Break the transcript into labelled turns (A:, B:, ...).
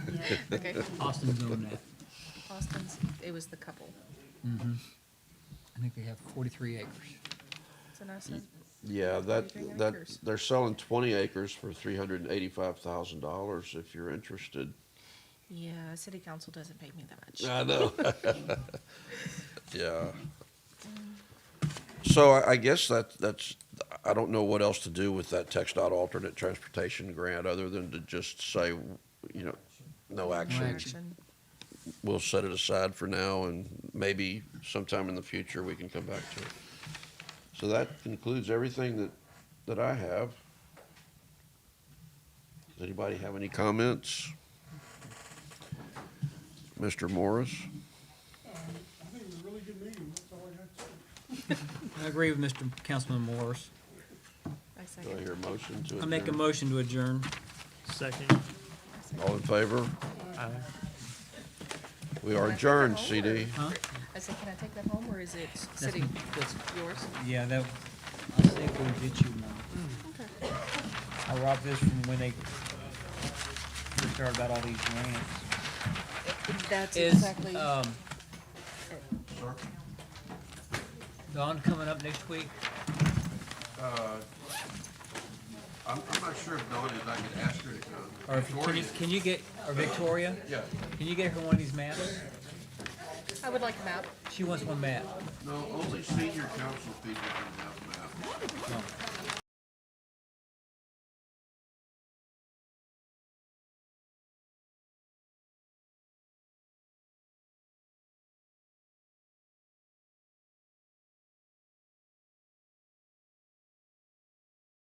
A: Okay,
B: Austin's own that.
A: Austin's, it was the couple.
B: I think they have 43 acres.
A: It's an Austin.
C: Yeah, that,
A: Anything
C: that,
A: acres?
C: they're selling twenty acres for three hundred and eighty-five thousand dollars if you're interested.
A: Yeah, city council doesn't pay me that much.
C: I know. Yeah. So I, I guess that, that's, I don't know what else to do with that text dot alternate transportation grant other than to just say, you know, no action.
B: action.
C: We'll set it aside for now and maybe sometime in the future we can come back to it. So that concludes everything that, that I have. Does anybody have any comments? Mr. Morris?
D: I think it was a really good meeting, that's all I had to say.
B: I agree with Mr. Councilman Morris.
A: I
C: Do I
A: second.
C: hear a motion to
B: I make a
C: adjourn?
B: motion to adjourn.
E: Second.
C: All in favor?
E: Aye.
C: We are adjourned, CD.
B: Huh?
A: I said, can I take that home or is it
B: That's-
A: city,
B: that's-
A: yours?
B: Yeah, that, I think we'll get you one.
A: Okay.
B: I robbed this from when they first started about all these grants.
A: That's
B: Is,
A: exactly,
B: um, Dawn coming up next week?
C: I'm, I'm not sure if Dawn is, I could ask her to come.
B: Or if, can you, can you get, or Victoria?
C: Yeah,
B: Can you get her one of these maps?
A: I would like a map.
B: She wants one map.
C: no, only senior council people can have that.
B: Oh,